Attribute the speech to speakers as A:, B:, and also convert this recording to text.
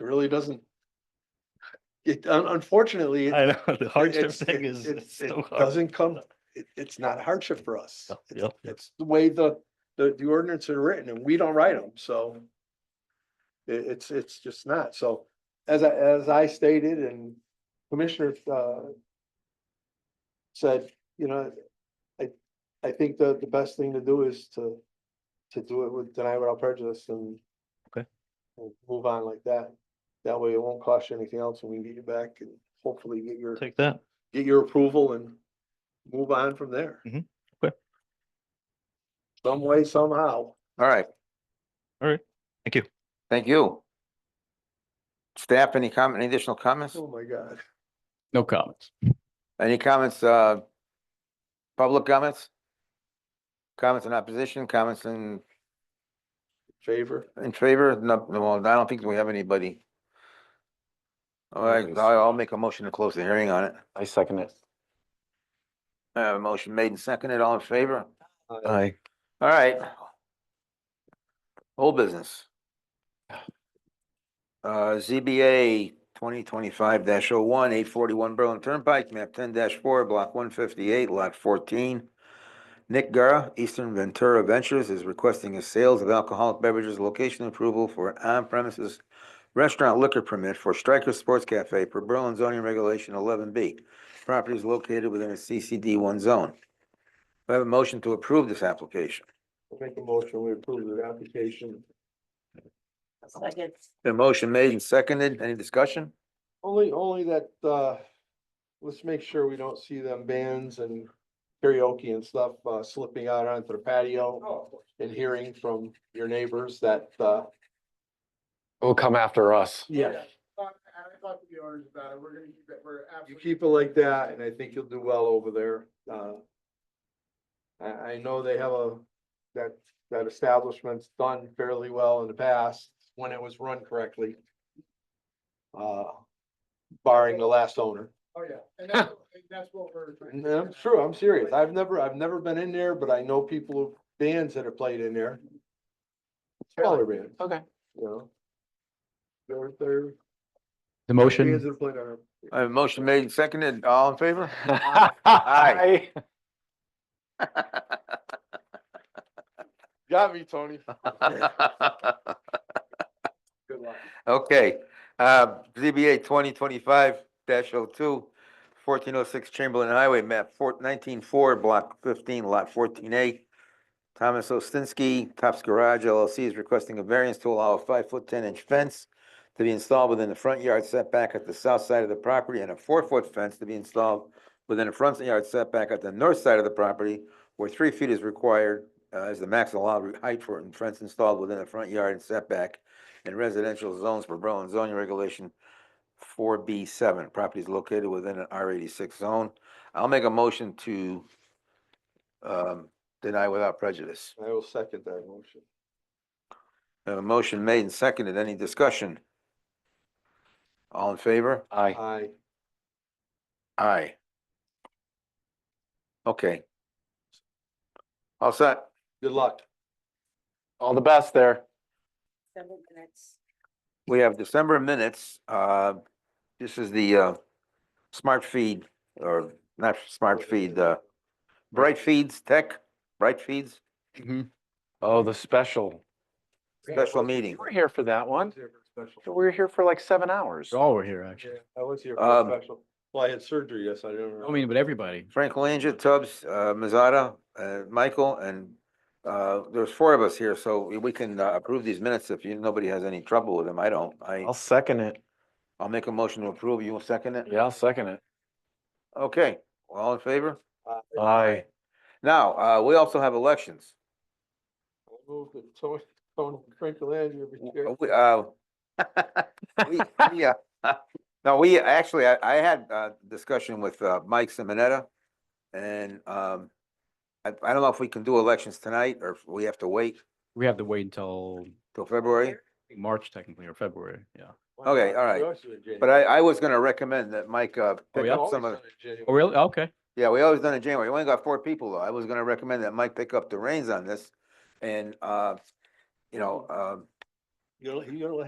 A: It really doesn't. It un- unfortunately. it-
B: I know, the hardship
A: it's-
B: thing
A: it-
B: is
A: it-
B: it's so
A: It
B: hard.
A: doesn't come, it, it's not hardship for us.
B: No,
A: It's-
B: yep.
A: It's the way the, the, the ordinance are written and we don't write them, so. It, it's, it's just not. So as I, as I stated and Commissioner, uh, said, you know, I, I think the, the best thing to do is to, to do it with deny without prejudice and
B: Okay.
A: and Move on like that. That way it won't cost you anything else and we can get you back and hopefully get your
B: Take that.
A: get your approval and move on from there.
B: Mhm. Okay.
A: Some way, somehow.
C: All right,
B: Thank you.
C: thank you. Staff, any comment, any additional comments?
A: Oh, my God.
D: No comments.
C: Any comments, uh, public comments? Comments in opposition, comments in,
A: Favor.
C: in favor? No, no, well, I don't think we have anybody. All right, I'll, I'll make a motion to close the hearing on it.
D: I second it.
C: Uh, motion made and seconded, all in favor?
D: Aye.
C: All right. Whole business. Uh, ZBA twenty twenty-five dash oh one, eight forty-one Berlin Turnpike, map ten four, block one fifty-eight, lot fourteen. Nick Gara, Eastern Ventura Ventures, is requesting a sales of alcoholic beverages location approval for an on-premises restaurant liquor permit for Striker Sports Cafe per Berlin zoning regulation eleven B. Property is located within a CCD one zone. Do I have a motion to approve this application?
A: Make a motion, we approve the application.
E: Second.
C: The motion made and seconded. Any discussion?
A: Only, only that, uh, let's make sure we don't see them bands and karaoke and stuff, uh, slipping out onto the
F: Oh,
A: patio and hearing from your neighbors that, uh,
D: Will come after us.
A: yeah,
F: talked- and I talked to the owners about it, we're gonna keep it, we're
A: you
F: absolutely.
A: keep it like that, and I think you'll do well over there. Uh, I, I know they have a, that, that establishment's done fairly well in the past, when it was run correctly. Uh, barring the last owner.
F: Oh, yeah, and that's, and that's what we're. trying
A: And
F: to
A: I'm
F: do.
A: sure, I'm serious. I've never, I've never been in there, but I know people, who- bands that have played in there. Smaller bands,
D: Okay.
A: you know? They're, they're.
D: The
A: Bands
D: motion.
A: that have played on.
C: I have a motion made and seconded. All in favor?
D: Aye.
A: Got me, Tony. Good luck.
C: Okay, uh, ZBA twenty twenty-five oh 2 1406 Chamberlain Highway, map four, nineteen four, block fifteen, lot fourteen A. Thomas Ostinsky, Tops Garage LLC is requesting a variance to allow a five-foot, ten-inch fence to be installed within the front yard setback at the south side of the property and a four-foot fence to be installed within a front yard setback at the north side of the property where three feet is required, uh, is the maximum allowed height for a fence installed within the front yard and setback in residential zones for Berlin zoning regulation four B seven. Property is located within an R eighty-six zone. I'll make a motion to um, deny without prejudice.
A: I will second that motion.
C: A motion made and seconded. Any discussion? All in favor?
D: Aye.
A: Aye.
C: Aye. Okay. All set?
A: Good luck.
D: All the best there.
E: Seven minutes.
C: We have December minutes. Uh, this is the, uh, smart feed or not smart feed, uh, Bright Feeds Tech, Bright Feeds
D: Oh, the special.
C: special meeting.
D: You were here for that one.
A: Special.
D: We were here for like seven hours.
G: All were here, actually.
A: I was here
C: for a
A: for
C: Um,
A: special. Well, I had surgery, yes, I didn't.
G: I mean, but everybody.
C: Frank Langia, Tubbs, uh, Mazada, uh, Michael, and, uh, there's four of us here, so we- we can uh, approve these minutes if you, nobody has any trouble with them. I don't. I,
D: I'll second it.
C: I'll make a motion to approve. You will second it?
D: Yeah, I'll second it.
C: Okay, all in favor?
D: Aye.
C: Now, uh, we also have elections.
A: Moved to Tony, Tony Franklin,
C: W-
A: you're.
C: uh, we, uh, we- we, uh, No, we, actually, I, I had a discussion with, uh, Mike Simonetta. And, um, I, I don't know if we can do elections tonight or if we have to wait
G: We have to wait until
C: till February.
G: March technically or February, yeah.
C: Okay, all right. But I, I was gonna recommend that Mike, uh, pick
G: yeah?
C: up some of,
G: Oh, really? Okay.
C: yeah, we always done in January. We only got four people though. I was gonna recommend that Mike pick up the reins on this. And, uh, you know, um,
A: You don't, you don't